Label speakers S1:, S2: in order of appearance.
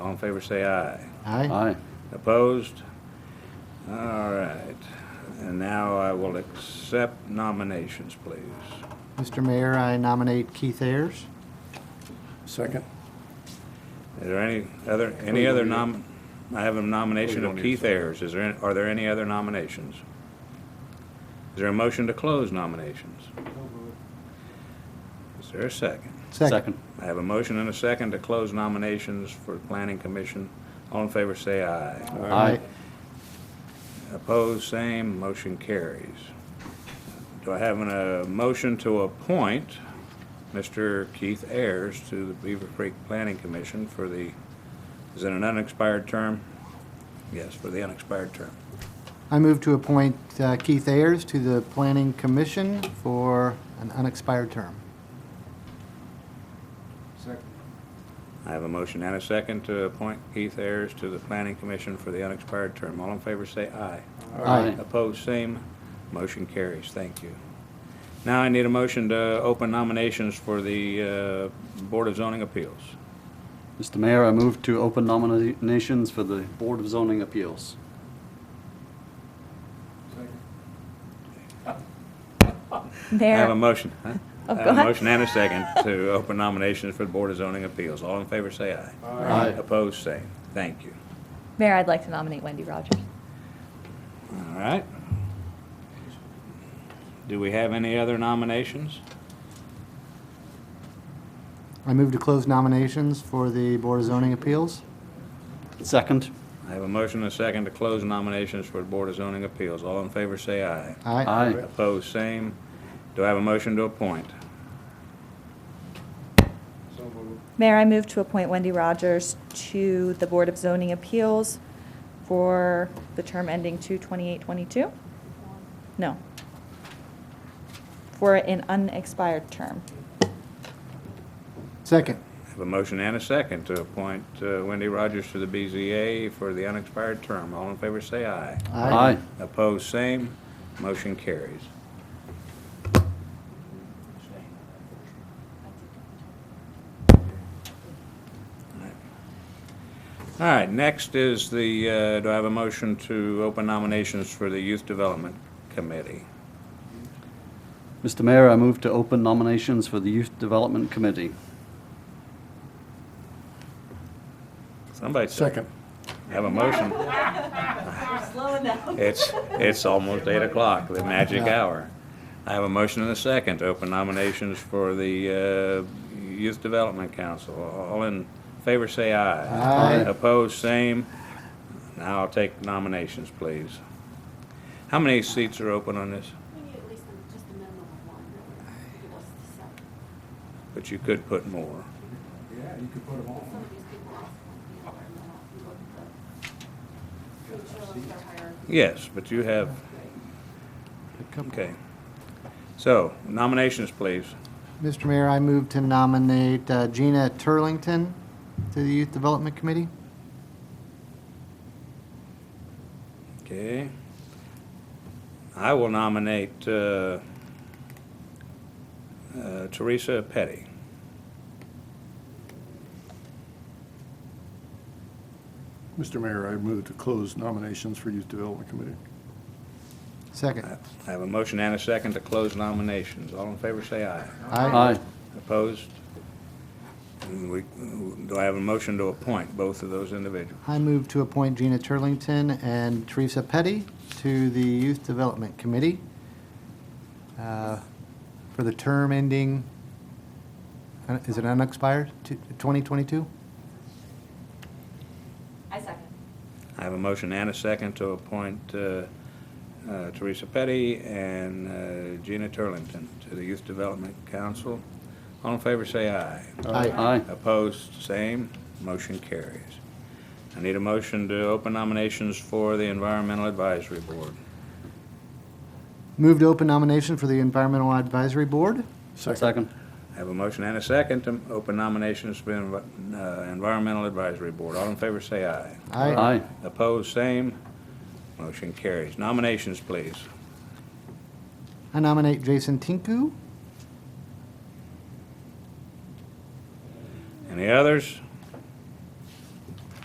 S1: All in favor, say aye.
S2: Aye.
S3: Aye.
S1: Opposed? All right. And now I will accept nominations, please.
S2: Mr. Mayor, I nominate Keith Ayers.
S3: Second.
S1: Is there any other, any other nom, I have a nomination of Keith Ayers. Is there, any- are there any other nominations? Is there a motion to close nominations? Is there a second?
S2: Second.
S1: I have a motion and a second to close nominations for Planning Commission. All in favor, say aye.
S3: Aye.
S1: Opposed, same, motion carries. Do I have a motion to appoint Mr. Keith Ayers to the Beaver Creek Planning Commission for the, is it an unexpired term? Yes, for the unexpired term.
S2: I move to appoint uh, Keith Ayers to the Planning Commission for an unexpired term.
S1: I have a motion and a second to appoint Keith Ayers to the Planning Commission for the unexpired term. All in favor, say aye.
S2: Aye.
S1: Opposed, same. Motion carries. Thank you. Now I need a motion to open nominations for the uh, Board of Zoning Appeals.
S3: Mr. Mayor, I move to open nominations for the Board of Zoning Appeals.
S1: I have a
S4: Mayor,
S1: motion. huh? I
S4: Oh,
S1: have
S4: go
S1: a
S4: ahead.
S1: motion and a second to open nominations for the Board of Zoning Appeals. All in favor, say aye.
S3: Aye.
S1: Opposed, same. Thank you.
S4: Mayor, I'd like to nominate Wendy Rogers.
S1: All right. Do we have any other nominations?
S2: I move to close nominations for the Board of Zoning Appeals.
S3: Second.
S1: I have a motion and a second to close nominations for the Board of Zoning Appeals. All in favor, say aye.
S2: Aye.
S3: Aye.
S1: Opposed, same. Do I have a motion to appoint?
S4: Mayor, I move to appoint Wendy Rogers to the Board of Zoning Appeals for the term ending 2/28/22? No. For an unexpired term.
S2: Second.
S1: I have a motion and a second to appoint uh, Wendy Rogers to the BZA for the unexpired term. All in favor, say aye.
S3: Aye.
S1: Opposed, same. Motion carries. All right, next is the, uh, do I have a motion to open nominations for the Youth Development Committee?
S3: Mr. Mayor, I move to open nominations for the Youth Development Committee.
S1: Somebody second. Have a motion. It's, it's almost eight o'clock, the magic hour. I have a motion and a second to open nominations for the uh, Youth Development Council. All in favor, say aye.
S2: Aye.
S1: Opposed, same. Now I'll take nominations, please. How many seats are open on this?
S5: We need at least a- just a minimum of one, really, to give us the set.
S1: But you could put more.
S5: Some of these people ask one to be on there, and then I'll look at the, make sure that they're higher.
S1: Yes, but you have, okay. So nominations, please.
S2: Mr. Mayor, I move to nominate uh, Gina Turlington to the Youth Development Committee.
S1: Okay. I will nominate uh, uh, Teresa Petty.
S6: Mr. Mayor, I move to close nominations for Youth Development Committee.
S2: Second.
S1: I have a motion and a second to close nominations. All in favor, say aye.
S3: Aye.
S1: Opposed? And we- Do I have a motion to appoint both of those individuals?
S2: I move to appoint Gina Turlington and Teresa Petty to the Youth Development Committee uh, for the term ending, uh, is it unexpired, Two- 2022?
S5: I second.
S1: I have a motion and a second to appoint uh, uh, Teresa Petty and uh, Gina Turlington to the Youth Development Council. All in favor, say aye.
S3: Aye.
S1: Opposed, same. Motion carries. I need a motion to open nominations for the Environmental Advisory Board.
S2: Move to open nomination for the Environmental Advisory Board.
S3: Second.
S1: I have a motion and a second to open nominations for the uh, Environmental Advisory Board. All in favor, say aye.
S3: Aye.
S1: Opposed, same. Motion carries. Nominations, please.
S2: I nominate Jason Tinku.
S1: Any others?